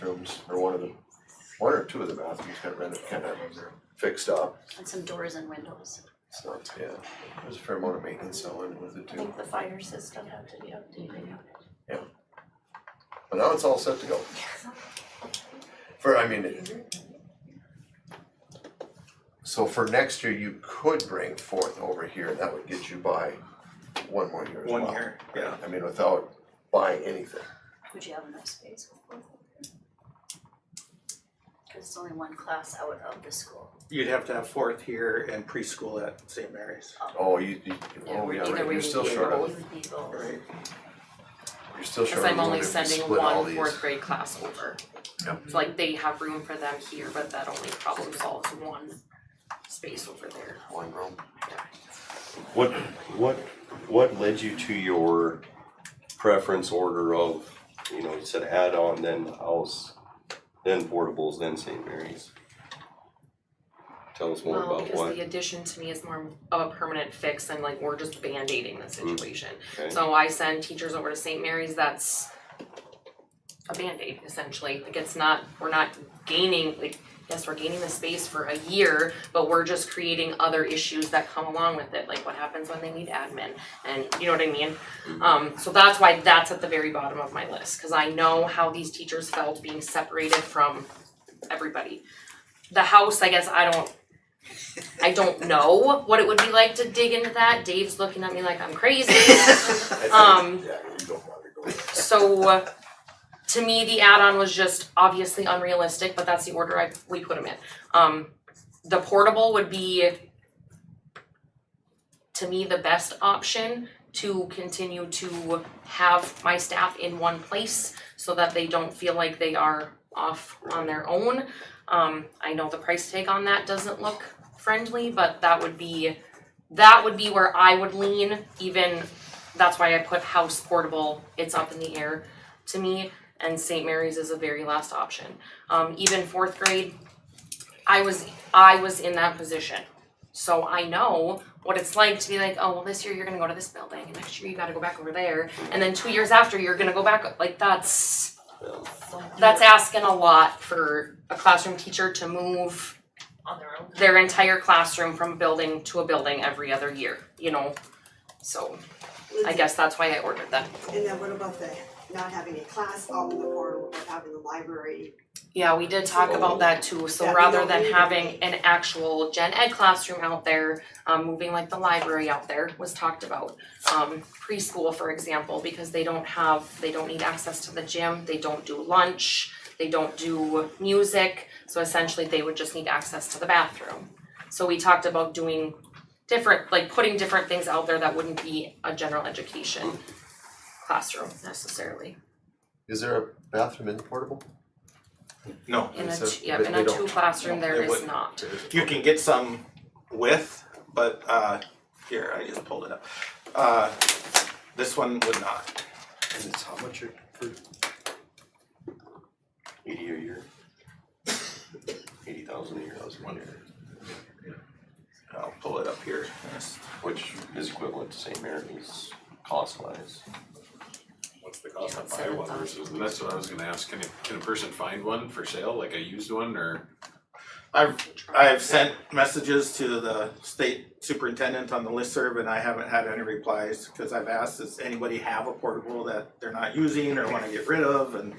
bathrooms, or one of them, one or two of the bathrooms got rented, kind of fixed up, and some doors and windows. so, yeah. There's a fair amount of maintenance that went with it I too, think the fire system had to be updated. but now it's all set to go. For, I mean, it- so for next year, you could bring forth over here, and that would get you by one more year as well. One year, yeah. I mean, without buying anything. Would you have enough space with both of them? Cause it's only one class out of the school. You'd have to have fourth here and preschool at St. Mary's, Oh, you, you, oh, yeah, Either right, way, you're we still need short both. of, You would need both. right? you're still Cause short of I'm one only if we sending split all one these. fourth grade class over. Yep. So like they have room for them here, but that only problem solves one space over there. One room. What, what, what led you to your preference order of, you know, you said add-on, then the house, then portables, then St. Mary's? Tell us more Well, about because what, the addition to me is more of a permanent fix and like we're just band-aiding Mm. the situation. okay, So I send teachers over to St. Mary's, that's a Band-Aid essentially, like it's not, we're not gaining, like, yes, we're gaining the space for a year, but we're just creating other issues that come along with it, like what happens when they need admin, and you know what I mean? Um, so that's why that's at the very bottom of my list, cause I know how these teachers felt being separated from everybody. The house, I guess, I don't, I don't know what it would be like to dig into that, Dave's looking at me like I'm crazy. Um, Yeah, you don't wanna go. So uh, to me, the add-on was just obviously unrealistic, but that's the order I, we put them in. Um, the portable would be to me the best option to continue to have my staff in one place so that they don't feel like they are off on their own. Um, I know the price tag on that doesn't look friendly, but that would be, that would be where I would lean even that's why I put house portable, it's up in the air to me, and St. Mary's is a very last option. Um, even fourth grade, I was, I was in that position. So I know what it's like to be like, oh, well, this year you're gonna go to this building, and next year you gotta go back over there, and then two years after, you're gonna go back, like, that's, that's asking a lot for a classroom teacher to move On their own. their entire classroom from building to a building every other year, you know? So I guess that's why I ordered them. And then what about the not having a class all in the portal, but having the library? Yeah, we did talk about that too, so Yeah, we rather don't than need having an actual gen ed classroom out there, um, moving like the library out there was talked about. Um, preschool, for example, because they don't have, they don't need access to the gym, they don't do lunch, they don't do music, so essentially they would just need access to the bathroom. So we talked about doing different, like putting different things out there that wouldn't be a general education classroom necessarily. Is there a bathroom in the portable? No, In a, So two- yeah, they- in they a don't. two classroom, there They is wouldn't. not. you can get some with, but, uh, here, I just pulled it up. Uh, this one would not. and it's how much are for? Eighty a year? Eighty thousand a year, I'll pull it up here. Yes. which is equivalent to St. Mary's cost-wise. What's the cost Yeah, of buy one 7,000. versus, and that's what I was gonna ask, can a, can a person find one for sale, like a used one, or? I've, I've sent messages to the state superintendent on the listserv and I haven't had any replies. Cause I've asked, does anybody have a portable that they're not using or wanna get rid of? And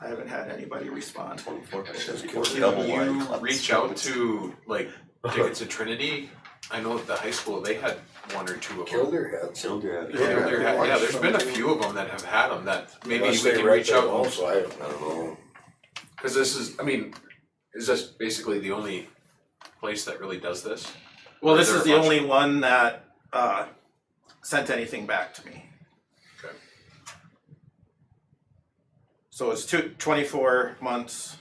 I haven't had anybody respond. Twenty-four percent. Can you reach out to, like, tickets to Trinity? I know at the high school, they had one or two of them. Kildare had some. Kildare. Yeah, there had- yeah, there's been a few of them that have had them that maybe we can reach out, and- Also, I don't I don't know. cause this is, I mean, is this basically the only place that really does this? Well, this Is is the there a bunch? only one that, uh, sent anything back to me. Okay. So it's two, twenty-four months.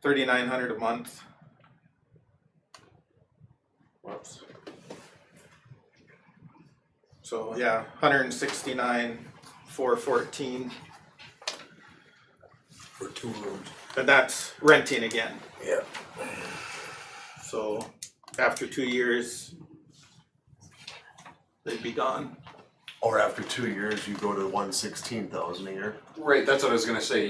Thirty-nine hundred a month. So, yeah, hundred and sixty-nine, four fourteen, for two rooms. but that's renting again. Yeah. So after two years, they'd be gone. Or after two years, you go to one sixteen thousand a year? Right, that's what I was gonna say,